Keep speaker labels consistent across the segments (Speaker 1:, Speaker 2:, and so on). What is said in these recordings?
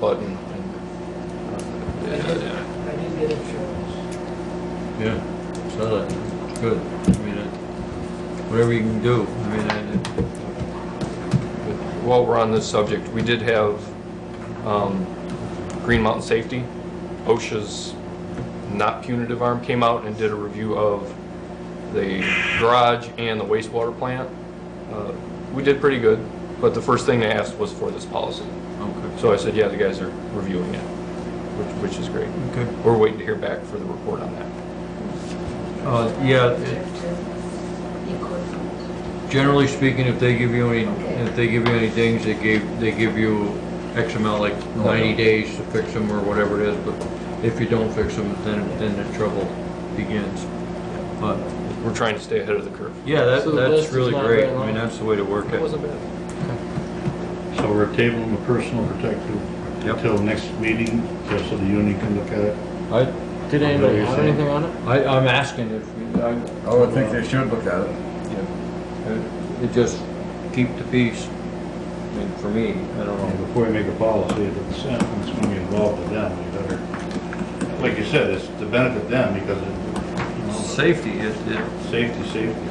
Speaker 1: button.
Speaker 2: I
Speaker 1: Yeah,
Speaker 2: did,
Speaker 1: yeah.
Speaker 2: I did get insurance.
Speaker 3: Yeah, so that's good. I mean, it- whatever you can do, I mean, I-
Speaker 1: But While we're on this subject, we did have um, Green Mountain Safety, OSHA's not punitive arm came out and did a review of the garage and the wastewater plant. Uh, We did pretty good, but the first thing they asked was for this policy.
Speaker 3: okay,
Speaker 1: So I said, yeah, the guys are reviewing it, which, which is great.
Speaker 3: okay.
Speaker 1: We're waiting to hear back for the report on that.
Speaker 3: Uh, yeah, it- generally speaking, if they give you any, if they give you any things, they gave, they give you X amount, like ninety days to fix them or whatever it is, but if you don't fix them, then, then the trouble begins. But,
Speaker 1: We're trying to stay ahead of the curve.
Speaker 3: yeah, that,
Speaker 2: So the list
Speaker 3: that's
Speaker 2: is
Speaker 3: really
Speaker 2: not
Speaker 3: great.
Speaker 2: very
Speaker 3: I mean,
Speaker 2: long.
Speaker 3: that's the way to work
Speaker 1: That
Speaker 3: it.
Speaker 1: wasn't bad.
Speaker 4: So we're tabling the personal protective
Speaker 3: Yep.
Speaker 4: until next meeting, just so the union can look at it.
Speaker 3: I,
Speaker 2: Did anybody have anything on it?
Speaker 3: I, I'm asking if, you- I,
Speaker 5: I would think they should look at it.
Speaker 3: uh, it just keep the peace. I mean, for me, I don't know.
Speaker 4: And Uh, Before we make a policy, if it's something that's gonna be involved with them, we better, like you said, it's to benefit them because of,
Speaker 3: Safety, it, it,
Speaker 4: you know, safety, safety.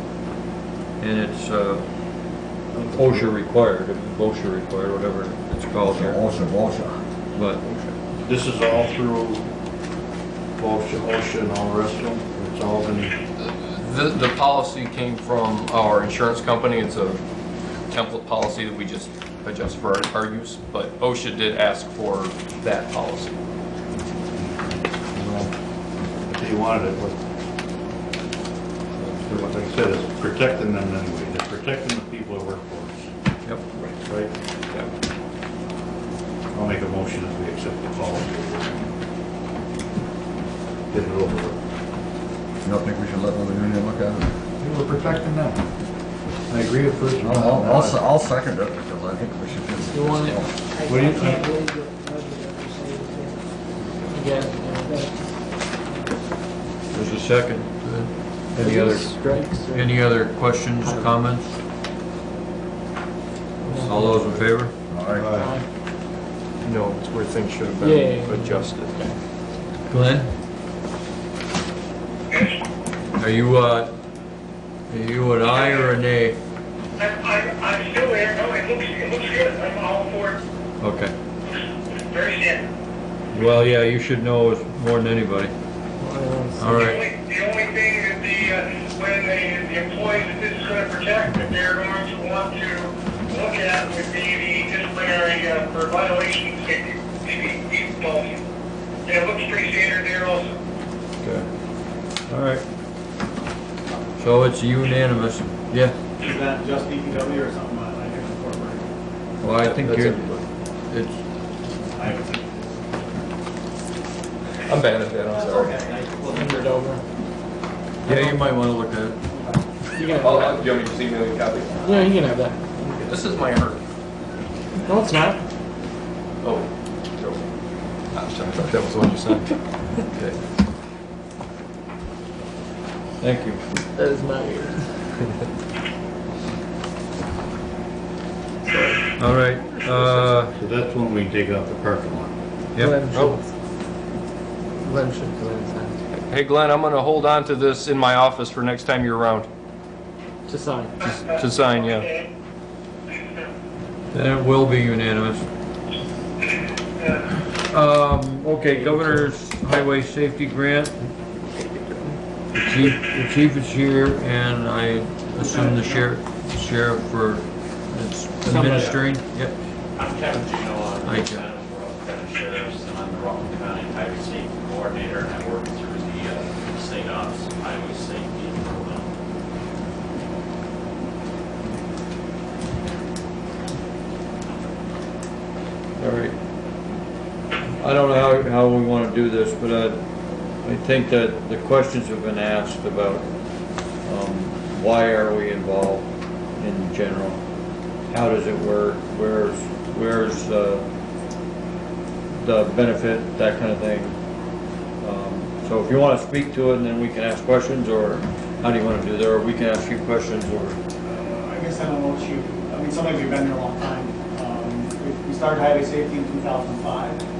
Speaker 3: and it's, uh, OSHA required, OSHA required, whatever it's called
Speaker 5: Also,
Speaker 3: here,
Speaker 5: also, also.
Speaker 3: but,
Speaker 4: This is all through OSHA, OSHA and all the rest of them, it's all been,
Speaker 1: The, the policy came from our insurance company. It's a template policy that we just adjust for our- our use, but OSHA did ask for that policy.
Speaker 4: you know, if they wanted it, but. Like I said, it's protecting them anyway, they're protecting the people that work for
Speaker 3: yep.
Speaker 4: us, right? I'll make a motion that we accept the policy. Get it over with.
Speaker 5: You don't think we should let another union look at it?
Speaker 4: You were protecting them. I agree with first.
Speaker 5: I'll, I'll, se- I'll second it because I think we should just.
Speaker 2: You want it?
Speaker 4: What do you
Speaker 2: I can't believe that Roger got to say that. He got it, you know,
Speaker 3: There's a second. Any
Speaker 2: that
Speaker 3: other,
Speaker 2: Strikes. or-
Speaker 3: any other questions, comments? All those in favor?
Speaker 5: All right.
Speaker 4: Aye.
Speaker 1: No, it's where things should have
Speaker 2: Yeah, yeah,
Speaker 1: been
Speaker 2: yeah.
Speaker 1: adjusted.
Speaker 3: Glenn? Are you, uh, are you an aye or a nay?
Speaker 6: I, I, I'm still there, no, it looks, it looks good, I'm all for it,
Speaker 3: Okay.
Speaker 6: It's very thin.
Speaker 3: Well, yeah, you should know us more than anybody.
Speaker 2: Well, I don't see-
Speaker 3: All
Speaker 6: The
Speaker 3: right.
Speaker 6: only, the only thing that the, uh, when the, the employees that this is gonna protect, that they're going to want to look at would be the disciplinary, uh, for violations, maybe, maybe, maybe, policy. And it looks pretty standard there also.
Speaker 3: Okay. All right. So it's unanimous. Yeah.
Speaker 7: Is that just DPW or something uh, like different corporate?
Speaker 3: Well, I think
Speaker 1: That's
Speaker 3: you're,
Speaker 1: everybody.
Speaker 3: it's,
Speaker 7: I would think.
Speaker 1: I'm bad at that, I'm sorry.
Speaker 7: I- well,
Speaker 2: Hand
Speaker 7: then-
Speaker 2: it over.
Speaker 3: yeah, you might wanna look at it.
Speaker 2: You can have
Speaker 1: I'll,
Speaker 2: that.
Speaker 1: I'll- do you want me to just email you a copy?
Speaker 2: Yeah, you can have that.
Speaker 1: This is my hurt.
Speaker 2: No, it's not.
Speaker 1: Oh. Joe. I'm sorry, I thought that was the one you signed. Okay.
Speaker 3: Thank you.
Speaker 2: That is not yours.
Speaker 3: All right, uh,
Speaker 4: So that's when we take out the parking lot.
Speaker 3: yep,
Speaker 2: Glenn
Speaker 1: Oh.
Speaker 2: should- Glenn should go inside
Speaker 1: Hey Glenn, I'm gonna hold on to this in my office for next time you're around
Speaker 2: to sign.
Speaker 1: to to sign, yeah.
Speaker 6: Okay.
Speaker 3: then it will be unanimous. Um, okay, Governor's Highway Safety Grant. The chief, the chief is here, and I assume the sheriff, sheriff for is administering, yep.
Speaker 8: I'm Kevin Gino,
Speaker 3: Hi,
Speaker 8: I'm the
Speaker 3: Kevin.
Speaker 8: Rockland County Sheriff's, and I'm the Rockland County Highway Safety Coordinator, and I work through the uh, state office of highway safety. Um,
Speaker 3: All right. I don't know how, how we want to do this, but I, I think that the questions have been asked about, um, why are we involved in general? How does it work? Where's, where's, uh, the benefit, that kind of thing? Um, So if you want to speak to it, and then we can ask questions, or how do you want to do that, or we can ask you questions, or?
Speaker 7: I guess I don't know what you, I mean, somebody we've been there a long time. Um, we- We
Speaker 6: started highway safety in 2005.